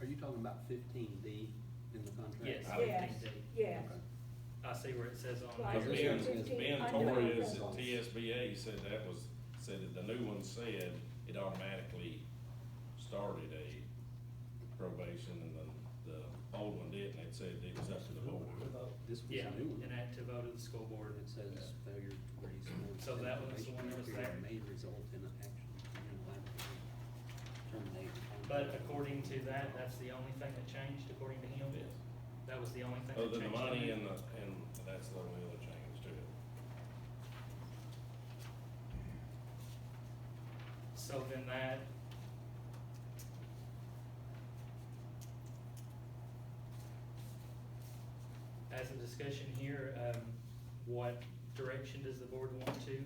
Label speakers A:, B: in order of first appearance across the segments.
A: Are you talking about fifteen D in the contract?
B: Yes.
A: Okay.
B: would
C: Yes,
B: think that-
C: yes.
B: I see where it says on
C: Right.
D: Because
B: there.
C: Yeah.
D: Ben,
C: Fifteen
D: Ben
C: under
D: Torres
A: the-
D: at TSBA said that was, said that the new one said it automatically started a probation and the, the old one didn't. It said it was up to the board.
A: This was
B: Yeah,
A: a new one.
B: an active vote of the school board.
A: It says failure to raise. or
B: So
A: extend
B: that was the
A: probation
B: one that was
A: period
B: there.
A: May result in an action. termination, termination.
B: But according to that, that's the only thing that changed according to him?
D: Yes.
B: That was the only thing that
D: Other
B: changed?
D: than the
B: on
D: money
B: it?
D: and the, and that's the only other change to it.
B: So then that. As a discussion here, um, what direction does the board want to?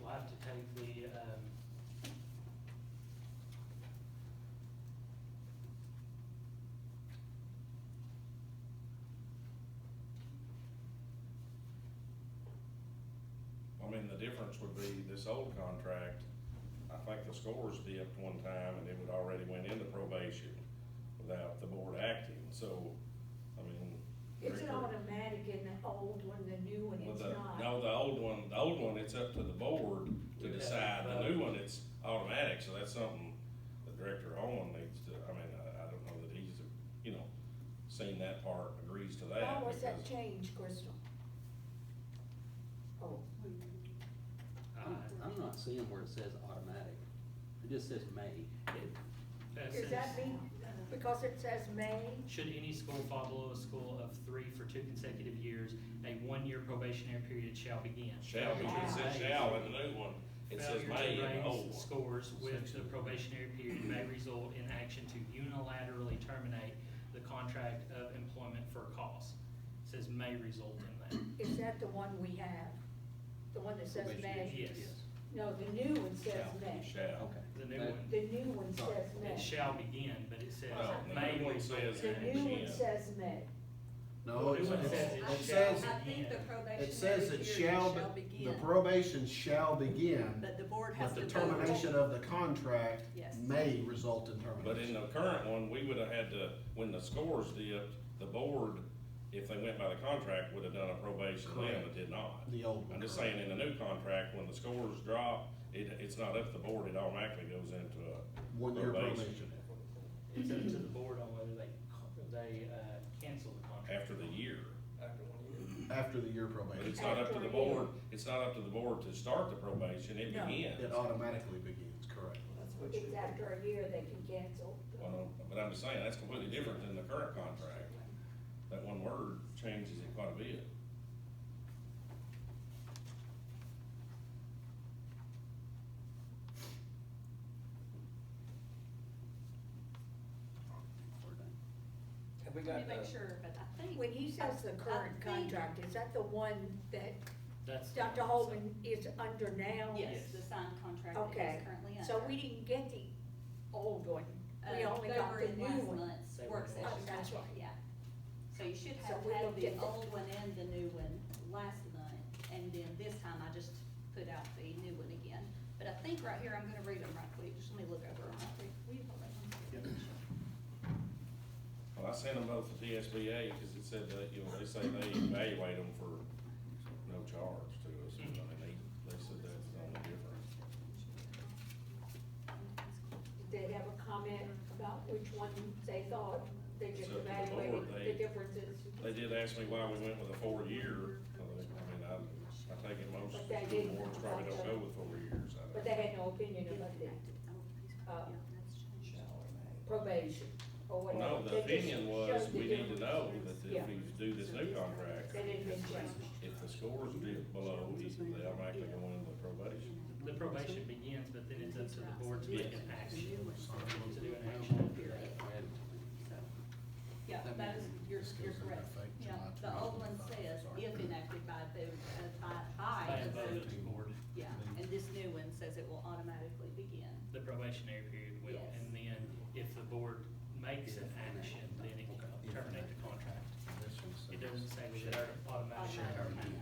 B: We'll have to take the, um.
D: I mean, the difference would be this old contract, I think the scores dipped one time and it would already went into probation without the board acting, so, I mean.
C: It's an automatic in the old one, the new one,
D: Well,
C: it's
D: the,
C: not.
D: no, the old one, the old one, it's up to the board to
B: Yeah.
D: decide, the new one, it's automatic, so that's something the director Owen needs to, I mean, I, I don't know that he's, you know, seen that part, agrees to that.
C: Why was that
D: because-
C: change, Crystal? Oh,
A: I'm,
B: uh,
A: I'm not seeing where it says automatic. It just says may.
B: it- that
C: does that
B: says,
C: mean, because it says May,
B: Should any school fall below a school of three for two consecutive years, a one-year probationary period shall begin.
D: Shall be, it says shall in the new one, it says may in
B: Failure to
D: the old
B: raise
D: one.
B: scores with the probationary period may result in action to unilaterally terminate the contract of employment for cause. It Says may result in
C: is that the one we have? The one that says
A: Probation.
B: that.
C: May?
B: Yes,
C: No, the new one says
D: Shall,
C: May.
D: Shall.
A: Okay.
B: the new
A: That-
B: one,
C: The new one says
B: it
C: May.
B: shall begin, but it says
D: Well, the
B: may
D: new one
B: result
D: says
C: The
B: in
C: new
B: action.
C: one
D: Yeah.
C: says May.
E: No,
B: It
E: it
B: says
E: it
B: it
E: says,
B: shall
F: Oh, I think the
B: begin.
E: it
F: probationary
E: says
F: period
E: it shall,
F: shall
E: be-
F: begin,
E: the probation shall begin,
F: but the board has
E: but
F: to
E: the
F: vote.
E: termination of the contract
F: Yes.
E: may result in termination.
D: But in the current one, we would have had to, when the scores dipped, the board, if they went by the contract, would have done a probation then, but
E: Correct.
D: did not.
E: The old one.
D: I'm just
E: correct.
D: saying, in the new contract, when the scores drop, it, it's not up to the board, it automatically goes into uh, a.
E: One-year
D: probation.
E: probation.
B: It's
F: Mm-hmm.
B: up to the board on whether they, co- they, uh, cancel the contract.
D: After the year,
E: After the year
D: but
E: probation,
D: it's not up to
C: After
D: the
C: a year.
D: board, it's not up to the board to start the probation, it
F: No.
D: begins.
E: it automatically begins, correct.
C: It's after a year they can cancel.
D: Well, But I'm just saying, that's completely different than the current contract, that one word changes it quite a bit.
A: We're done.
G: Have we
F: Let
G: got
F: me make
G: the,
F: sure, but I think.
C: When he says the
F: I- I
C: current
F: think-
C: contract, is that the one that
B: That's.
C: Dr. Holman is under now?
F: Yes, the signed contract that
C: Okay,
F: he's currently under.
C: so we didn't get the old one,
F: Uh,
C: we only
F: they
C: got
F: were
C: the
F: in
C: new
F: last
C: one.
F: month's
B: They were
F: work
B: in
F: session.
C: last- That's right.
F: Yeah. So you should
C: So
F: have
C: we
F: had
C: looked
F: the
C: at the-
F: old one and the new one last month, and then this time I just put out the new one again. But I think right here, I'm gonna read them right quick, just let me look over them right quick. Will you hold that one? second?
D: Well, I sent them both to TSBA, cause it said that, you know, they say they evaluate them for no charge to us, I mean, they, they said that's the only difference.
C: Did they have a comment about which one they thought, they just
D: So the board,
C: evaluated
D: they-
C: the differences?
D: They did ask me why we went with a four-year, I think- I mean, I, I take it most
C: But they didn't.
D: boards probably don't go with four years, I
C: But
D: don't.
C: they had no opinion
F: You
C: about
F: looked
C: the
F: at it. Oh, please.
C: Uh,
F: Yeah, that's changed.
C: probation or
D: Well,
C: whatever.
D: no, the
C: They just
D: opinion was,
C: showed
D: we
C: the
D: need to
C: difference.
D: know that
C: Yeah.
D: if we do this new contract,
C: That it had changed.
D: if the scores dip below, they automatically go into probation.
B: The probation begins, but then it's up to the board to make an action, to do an
A: Well,
B: action.
A: we're ahead of time.
F: Yeah,
E: That
F: that is,
E: means
F: you're,
E: this
F: you're
E: goes into
F: correct.
E: effect
F: Yeah,
E: July
F: the old one
E: 2025,
F: says
E: sorry.
F: if enacted by the, uh, by, by
B: By a
F: the
B: vote
F: vote.
B: of the board,
F: Yeah, and this new one says it will automatically begin.
B: the probationary period will,
F: Yes.
B: and then if the board makes an action, then it
A: Okay.
B: can terminate the contract.
E: This one
B: It
E: says-
B: doesn't say we should automatically
F: Automatically.
B: terminate.